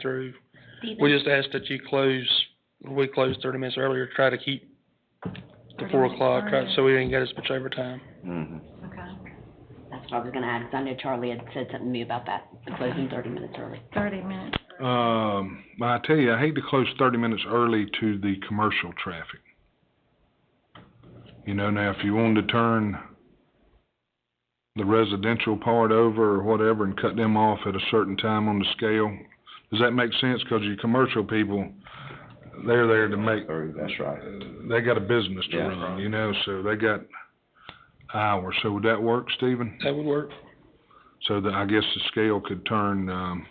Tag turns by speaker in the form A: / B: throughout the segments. A: through.
B: Steven?
A: We just asked that you close, we closed thirty minutes earlier, try to keep the four o'clock, try, so we didn't get as much overtime.
C: Mm-hmm.
B: Okay.
D: That's what I was gonna add, 'cause I know Charlie had said something to me about that, the closing thirty minutes early.
B: Thirty minutes.
E: Um, well, I tell you, I hate to close thirty minutes early to the commercial traffic. You know, now if you wanted to turn the residential part over or whatever and cut them off at a certain time on the scale, does that make sense? Cause your commercial people, they're there to make,
C: that's right.
E: they got a business to
C: Yeah.
E: run, you know, so they got hours. So would that work, Stephen?
A: That would work.
E: So that, I guess the scale could turn, um,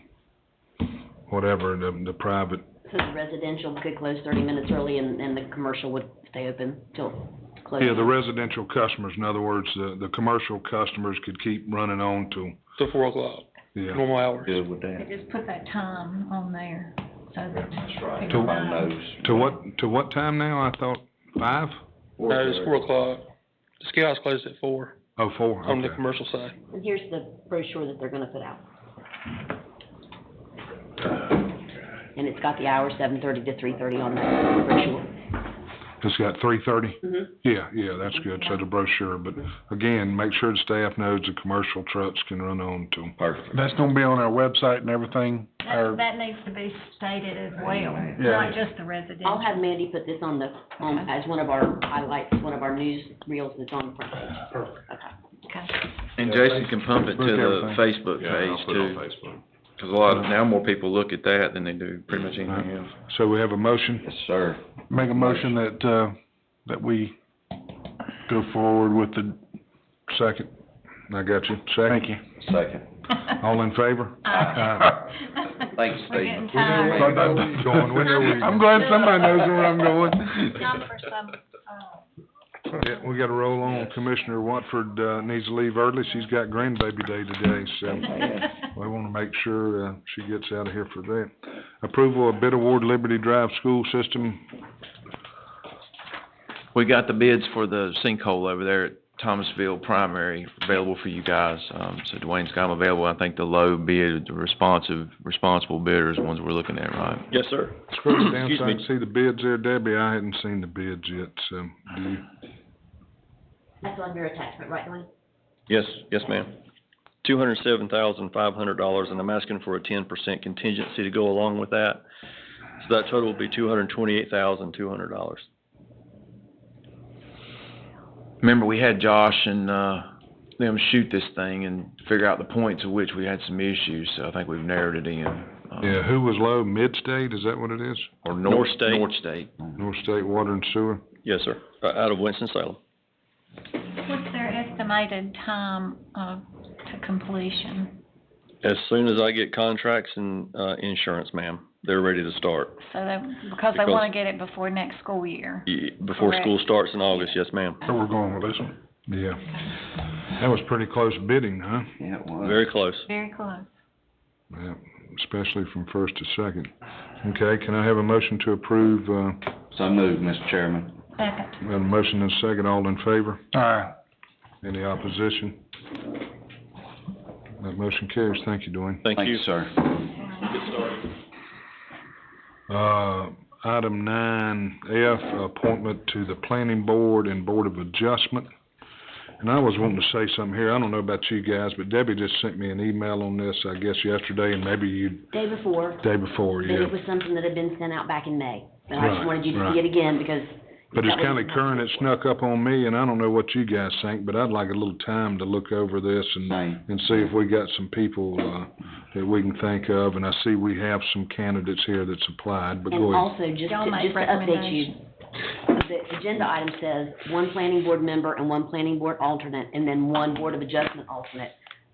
E: whatever, the, the private
D: So the residential could close thirty minutes early and, and the commercial would stay open till close.
E: Yeah, the residential customers, in other words, the, the commercial customers could keep running on till,
A: Till four o'clock,
E: yeah,
A: normal hours.
C: Good with that.
B: They just put that time on there, so Um, that.
C: That's right.
B: people
C: Everybody
B: know.
C: knows.
E: to what, to what time now? I thought five?
A: No, it's four o'clock. The scale house closed at four
E: Oh, four,
A: on the
E: okay.
A: commercial side.
D: And here's the brochure that they're gonna put out. And it's got the hours, seven thirty to three thirty on that brochure.
E: It's got three thirty?
D: Mhm.
E: Yeah, yeah, that's good, so the brochure, but again, make sure the staff knows the commercial trucks can run on till.
C: Perfect.
F: That's gonna be on our website and everything,
B: That,
F: our,
B: that needs to be stated as well,
F: Yeah.
B: not just the residential.
D: I'll have Mandy put this on the, on, as one of our highlights, one of our news reels that's on the front page. Perfect. Okay.
B: Okay.
G: And Jason can pump it to
F: Look
G: the
F: everything.
G: Facebook
H: Yeah, and
G: page
H: I'll put it on
G: too,
H: Facebook.
G: 'cause a lot, of- now more people look at that than they do pretty much anything else.
E: So we have a motion,
C: Yes, sir.
F: make a motion that, uh, that we go forward with the,
E: second, I got you, second,
F: thank you.
C: Second.
E: all in favor?
B: Uh,
C: Thanks,
B: We're
C: Steve.
B: getting
E: Where
B: tired.
E: are we Going, where are we?
F: I'm glad somebody knows where I'm going.
B: Time for some, uh,
E: Yeah, we gotta roll on. Commissioner Watford, uh, needs to leave early. She's got grandbaby day today, so we wanna make sure, uh, she gets out of here for that. Approval of bid award Liberty Drive School System.
G: We got the bids for the sinkhole over there at Thomasville Primary available for you guys. Um, so Dwayne's got 'em available. I think the low bid, the responsive, responsible bidders, ones we're looking at, right?
I: Yes, sir.
E: Scroll down,
I: Excuse
E: so I can
I: me.
E: see the bids there. Debbie, I hadn't seen the bids yet, so, do you?
D: That's on your attachment, right, Dwayne?
I: Yes, yes, ma'am. Two hundred seven thousand five hundred dollars, and I'm asking for a ten percent contingency to go along with that. So that total will be two hundred twenty-eight thousand two hundred dollars.
G: Remember, we had Josh and, uh, them shoot this thing and figure out the points at which we had some issues, so I think we've narrowed it in. Um,
E: Yeah, who was low? Midstate, is that what it is?
G: Or
I: North
G: North,
I: State.
G: North State.
E: North State Water and Sewer?
I: Yes, sir, Uh, out of Winston-Salem.
B: what's their estimated time of, to completion?
I: As soon as I get contracts and, uh, insurance, ma'am, they're ready to start.
B: So that, because they
I: Because-
B: wanna get it before next school year.
I: Y- E, Before
B: Correct.
I: school starts in August, yes, ma'am.
F: Where we're going with this one.
E: Yeah. That was pretty close bidding, huh?
C: Yeah, it was.
I: Very close.
B: Very close.
E: Yeah, especially from first to second. Okay, can I have a motion to approve, uh,
C: So moved, Mr. Chairman.
B: Second.
E: We have a motion and a second, all in favor?
F: Aye.
E: Any opposition? That motion carries, thank you, Dwayne.
I: Thank
C: Thank you,
I: you.
C: sir.
E: Uh, item nine F, appointment to the planning board and board of adjustment. And I was wanting to say something here, I don't know about you guys, but Debbie just sent me an email on this, I guess yesterday, and maybe you,
D: Day before,
E: day before,
D: But
E: yeah.
D: it was something that had been sent out back in May. And I
E: Right,
D: just wanted you to
E: right.
D: see it again because.
E: But
D: that
E: it's kinda
D: was-
E: current, it snuck up on me, and I don't know what you guys think, but I'd like a little time to look over this and
C: Same.
E: and see if we got some people, uh, that we can think of, and I see we have some candidates here that's applied, but
D: And
E: go ahead.
D: also, just
B: Y'all
D: to,
B: make
D: just to update you,
B: recommendations.
D: the agenda item says one planning board member and one planning board alternate, and then one board of adjustment alternate.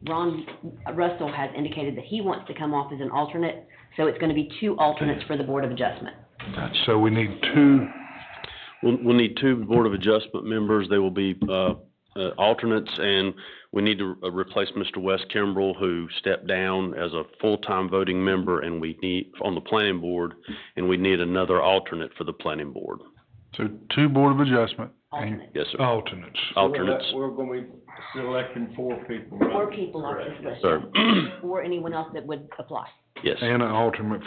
D: Ron Russell has indicated that he wants to come off as an alternate, so it's gonna be two alternates for the board of adjustment.
E: So we need two,
H: We'll, we'll need two Board of Adjustment members. They will be, uh, uh, alternates, and we need to uh, replace Mr. Wes Kimbrell, who stepped down as a full-time voting member, and we need, on the Planning Board, and we need another alternate for the Planning Board.
F: So two Board of Adjustment, and
D: Alternate.
H: Yes, sir.
E: alternates.
H: Alternates.
F: We're gonna be selecting four people,
D: Four people off this list,
H: Sir.
D: or anyone else that would apply.
H: Yes.
E: And an alternate